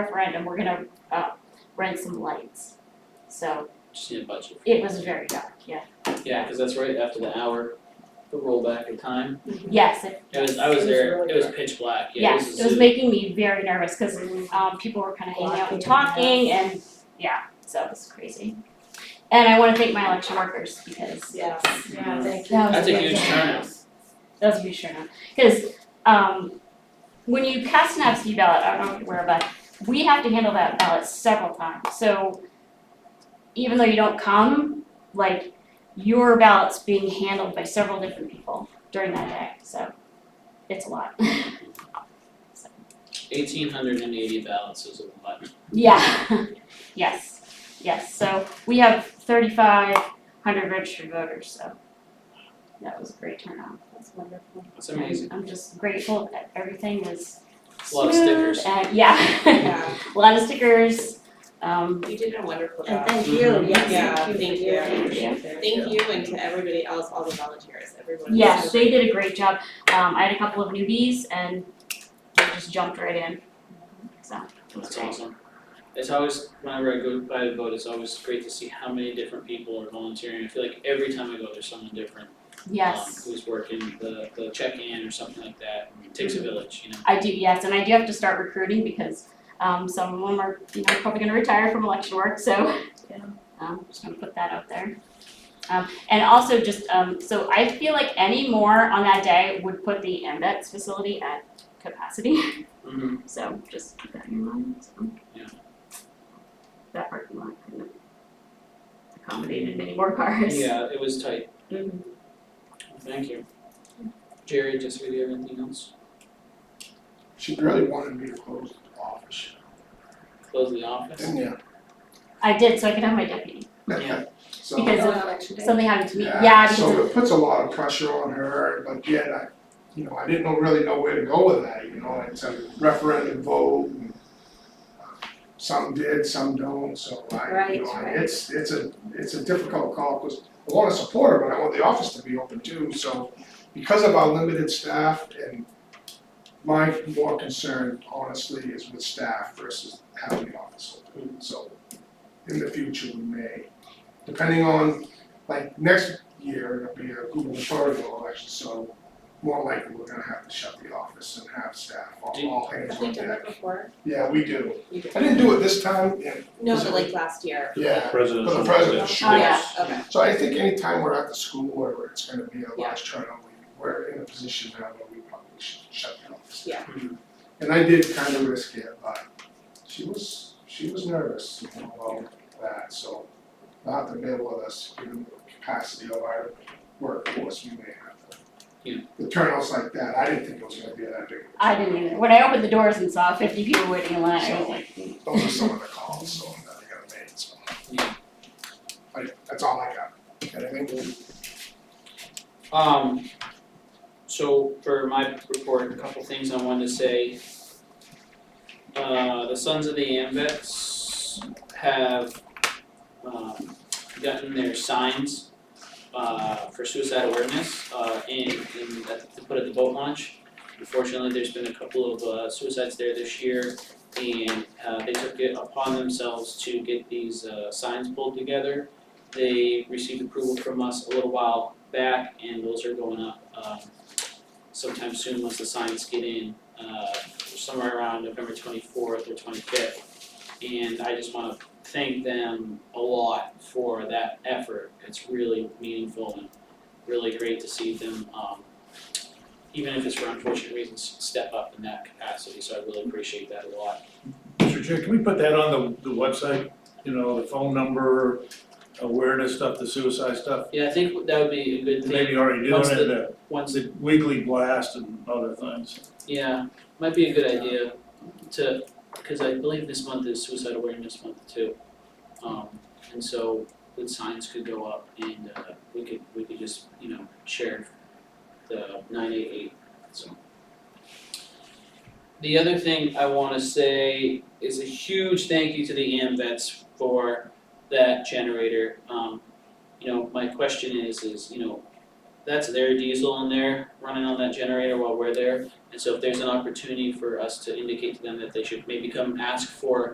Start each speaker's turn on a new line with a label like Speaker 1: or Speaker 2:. Speaker 1: referendum, we're gonna, uh, rent some lights. So
Speaker 2: Just need a budget.
Speaker 1: it was very dark, yeah.
Speaker 2: Yeah, cause that's right after the hour, the rollback in time.
Speaker 1: Yes, it,
Speaker 2: It was, I was
Speaker 3: It was
Speaker 2: there,
Speaker 3: really
Speaker 2: it was
Speaker 3: dark.
Speaker 2: pitch black, yeah, it
Speaker 1: yes,
Speaker 2: was a
Speaker 1: it was
Speaker 2: zoo.
Speaker 1: making me very nervous, cause, um, people were kinda hanging out and talking and, yeah, so it was crazy. And I wanna thank my election workers because
Speaker 3: Yeah,
Speaker 1: Yeah.
Speaker 3: thank you.
Speaker 1: That was
Speaker 2: That's a
Speaker 1: great.
Speaker 2: huge turnout.
Speaker 1: That was a huge turnout, cause um when you cast an absentee ballot, I don't know if you're aware, but we have to handle that ballot several times, so even though you don't come, like your ballot's being handled by several different people during that day, so it's a lot.
Speaker 2: Eighteen hundred and eighty ballots is a lot.
Speaker 1: Yeah, yes, yes, so we have thirty-five hundred registered voters, so that was a great turnout.
Speaker 3: That's wonderful.
Speaker 2: It's amazing.
Speaker 1: And I'm just grateful that everything was
Speaker 2: A lot of stickers.
Speaker 1: smooth and- yeah,
Speaker 3: Yeah,
Speaker 1: a lot of stickers. Um,
Speaker 4: You did a wonderful
Speaker 3: and
Speaker 4: job.
Speaker 3: thank you,
Speaker 2: Mhm.
Speaker 3: yes,
Speaker 4: Mm-hmm. Yeah,
Speaker 3: thank you. for
Speaker 4: thank you.
Speaker 3: your
Speaker 4: Thank
Speaker 3: leadership there, too.
Speaker 4: Thank you and to everybody else, all the volunteers, everyone.
Speaker 1: yes, they did a great job. Um, I had a couple of newbies and they just jumped right in. So it was
Speaker 2: That's
Speaker 1: great.
Speaker 2: awesome. It's always, whenever I go by the vote, it's always great to see how many different people are volunteering. I feel like every time I go, there's someone different. um,
Speaker 1: Yes,
Speaker 2: Who's working the, the check-in or something like that. It takes
Speaker 1: Mm-hmm.
Speaker 2: a village, you know?
Speaker 1: I do. Yes, and I do have to start recruiting because um, some of them are you know probably going to retire from election work. So
Speaker 3: Yeah.
Speaker 1: um, just going to put that out there. Um, and also just um, so I feel like any more on that day would put the MBETS facility at capacity.
Speaker 2: Mm-hmm.
Speaker 1: So just keep that in mind, so.
Speaker 2: Yeah.
Speaker 1: That parking lot couldn't have accommodated many more cars.
Speaker 2: Yeah, it was tight.
Speaker 3: Mhm.
Speaker 4: mm-hmm.
Speaker 2: Thank you. Jerry, Jessica, do you have anything else?
Speaker 5: She really wanted me to close the office,
Speaker 2: Close the office?
Speaker 5: didn't ya?
Speaker 1: I did, so I could have my deputy,
Speaker 2: Yeah.
Speaker 5: So,
Speaker 1: Because
Speaker 3: Oh,
Speaker 1: of
Speaker 3: election day.
Speaker 1: something happened to me, yeah,
Speaker 5: yeah,
Speaker 1: because
Speaker 5: so
Speaker 1: of,
Speaker 5: it puts a lot of pressure on her, but yet I, you know, I didn't know- really know where to go with that, you know, it's a referendum vote and uh, some did, some don't, so I,
Speaker 3: Right,
Speaker 5: you know, I-
Speaker 3: right.
Speaker 5: it's, it's a, it's a difficult call, cause I wanna support her, but I want the office to be open too, so because of our limited staff and my more concern honestly is with staff versus having the office open, so in the future we may. Depending on, like, next year, it'll be a gubernatorial election, so more likely we're gonna have to shut the office and have staff, all,
Speaker 2: Do-
Speaker 5: all hands
Speaker 4: Have we
Speaker 5: on
Speaker 4: done
Speaker 5: deck.
Speaker 4: that before?
Speaker 5: Yeah, we do.
Speaker 4: You did.
Speaker 5: I didn't do it this time, yeah,
Speaker 4: No, but like last year.
Speaker 5: yeah.
Speaker 6: Presidential.
Speaker 5: For the president.
Speaker 6: election.
Speaker 1: Oh, yeah.
Speaker 4: okay.
Speaker 5: So I think anytime we're at the school where it's gonna be a
Speaker 4: Yeah.
Speaker 5: large turnout, we- we're in a position now where we probably should shut the office.
Speaker 4: Yeah.
Speaker 2: Mhm.
Speaker 5: And I did kind of risk it, but she was, she was nervous about that, so we'll have to bear with us, given the capacity of our workforce, we may have to.
Speaker 2: Yeah.
Speaker 5: The turnouts like that, I didn't think it was gonna be that big. of a
Speaker 1: I didn't either, when I opened the doors and saw fifty people waiting in line, I was like, mm.
Speaker 5: turnout. Those are some of the calls, so that I gotta make, so.
Speaker 2: Yeah.
Speaker 5: I, that's all I got, Got anything?
Speaker 2: Um, so for my report, a couple things I wanted to say. Uh, the Sons of the Ambets have, um, gotten their signs, uh, for suicide awareness, uh, in, in, at- to put at the boat launch. Unfortunately, there's been a couple of uh, suicides there this year, and, uh, they took it upon themselves to get these, uh, signs pulled together. They received approval from us a little while back and those are going up um sometime soon once the signs get in, uh somewhere around November twenty fourth or twenty fifth. And I just wanna thank them a lot for that effort. It's really meaningful and really great to see them um even if it's for unfortunate reasons, step up in that capacity, so I really appreciate that a lot.
Speaker 6: Mr. Chair, can we put that on the, the website, you know, the phone number, awareness stuff, the suicide stuff?
Speaker 2: Yeah, I think that would be a good thing.
Speaker 6: Maybe already doing
Speaker 2: Once
Speaker 6: it, the,
Speaker 2: Once
Speaker 6: the weekly blast and other things.
Speaker 2: Yeah, might be a good idea to, because I believe this month is suicide awareness month too. Um, and so the signs could go up and uh, we could, we could just, you know, share the nine eight eight, so. The other thing I wanna say is a huge thank you to the AMVets for that generator. Um, you know, my question is, is, you know, that's their diesel in there running on that generator while we're there And so if there's an opportunity for us to indicate to them that they should maybe come ask for